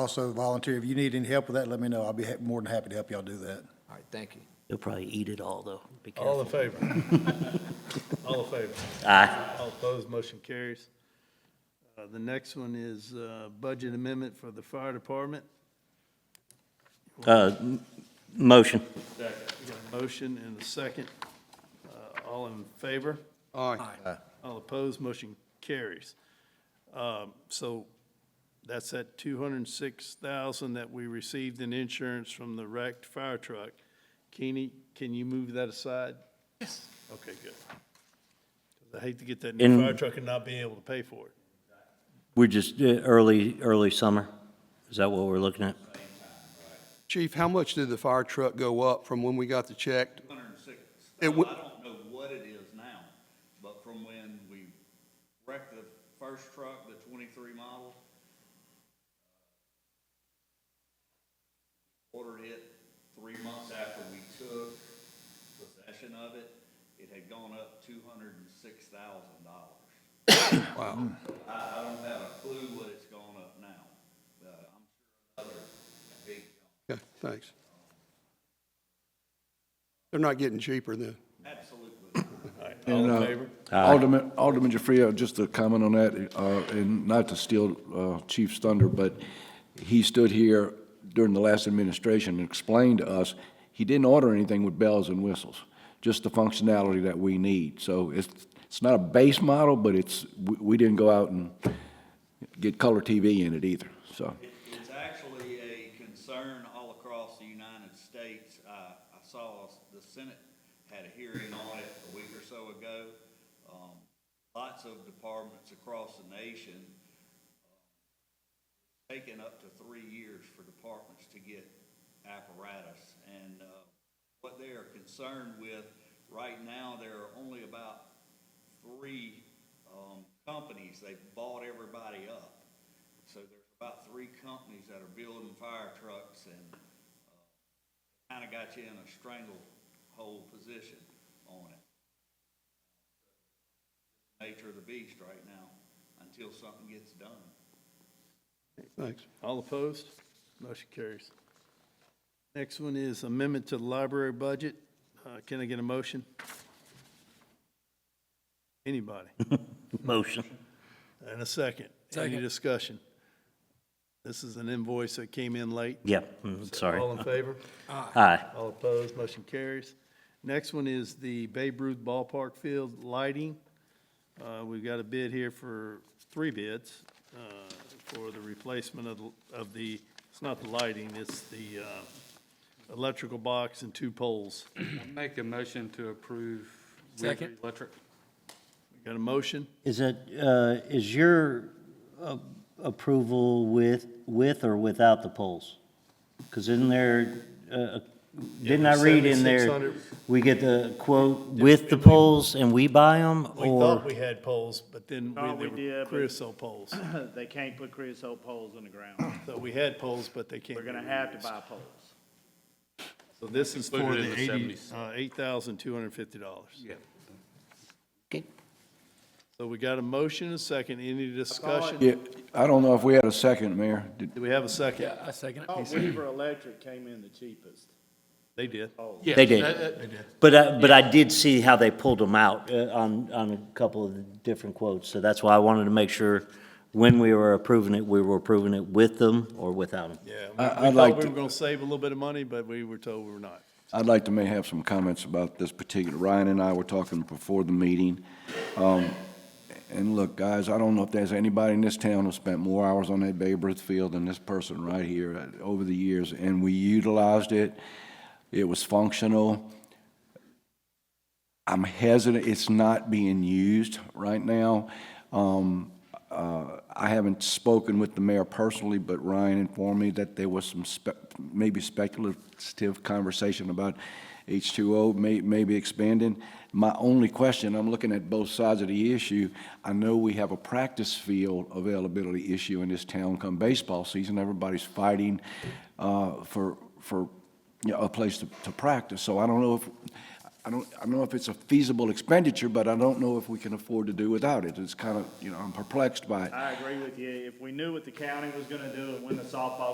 Also volunteer, if you need any help with that, let me know. I'll be ha- more than happy to help y'all do that. All right, thank you. He'll probably eat it all, though. Be All in careful. favor? All in favor? Aye. All opposed, motion carries. Uh, The next one is uh, budget amendment for the fire department. Uh, m- Motion. Second. Got a motion and a second. Uh, All in favor? Aye. All opposed, motion carries. Um, So that's that two hundred and six thousand that we received in insurance from the wrecked fire truck. Keeney, can you move that aside? Yes. Okay, good. 'Cause I hate to get that new In- fire truck and not be able to pay for it. We're just, uh, early, early summer? Is that what we're looking at? Chief, how much did the fire truck go up from when we got the check? Hundred and six. It So would- I don't know what it is now, but from when we wrecked the first truck, the twenty-three model, uh, ordered it three months after we took possession of it, it had gone up two hundred and six thousand dollars. Wow. I, I don't have a clue what it's gone up now. Uh, I'm sure other big, Okay, thanks. They're not getting cheaper then. absolutely. All in And, uh, favor? Alderman, Alderman Jafria, just a comment on that, uh, and not to steal uh, Chief's thunder, but he stood here during the last administration and explained to us, he didn't order anything with bells and whistles, just the functionality that we need. So it's, it's not a base model, but it's, we- we didn't go out and get color TV in it either, so. It- It's actually a concern all across the United States. I, I saw the Senate had a hearing on it a week or so ago. Um, lots of departments across the nation, taking up to three years for departments to get apparatus. And, uh, what they are concerned with, right now, there are only about three, um, companies. They've bought everybody up. So there's about three companies that are building fire trucks and kind of got you in a stranglehold position on it. Nature of the beast right now, until something gets done. Thanks. All opposed? Motion carries. Next one is amendment to the library budget. Uh, Can I get a motion? Anybody? Motion. And a second. Any discussion? This is an invoice that came in late. Yeah, mm, sorry. All in favor? Aye. All opposed? Motion carries. Next one is the Babe Ruth Ballpark Field lighting. Uh, We've got a bid here for, three bids uh, for the replacement of, the- of the, it's not the lighting, it's the uh, electrical box and two poles. Make a motion to approve. Second. Electric. Got a motion? Is that, uh, is your uh, approval with, with or without the polls? Because in there, uh, didn't I read in there, 7,600. we get the quote with the polls and we buy them? We thought we had poles, but then No, we we- they were did, but- creosote poles. They can't put creosote poles in the ground. So we had poles, but they can't. We're be gonna have to reused. buy poles. So this is for Included in the the eighty, 70s. uh, eight thousand two hundred and fifty dollars. Yeah. Okay. So we got a motion, and a second, any discussion? Yeah, I don't know if we had a second, Mayor. Did- Do we have a second? I second Oh, Weaver Electric came in the cheapest. Oh. They did. it. They did. But, I- but I did see how they pulled them out uh, on, on a couple of the different quotes. So that's why I wanted to make sure when we were approving it, we were approving it with them or without them. Yeah. we- I- I'd We like thought we to- were gonna save a little bit of money, but we were told we were not. I'd like to may have some comments about this particular, Ryan and I were talking before the meeting. Um, And look, guys, I don't know if there's anybody in this town who spent more hours on that Babe Ruth field than this person right here uh, over the years, and we utilized it. It was functional. I'm hesitant, it's not being used right now. Um, uh, I haven't spoken with the mayor personally, but Ryan informed me that there was some spec- maybe speculative conversation about H2O may, maybe expanding. My only question, I'm looking at both sides of the issue. I know we have a practice field availability issue in this town come baseball season. Everybody's fighting, uh, for, for, you know, a place to, to practice. So I don't know if, I don't, I don't know if it's a feasible expenditure, but I don't know if we can afford to do without it. It's kind of, you know, I'm perplexed by it. I agree with you. If we knew what the county was gonna do and when the softball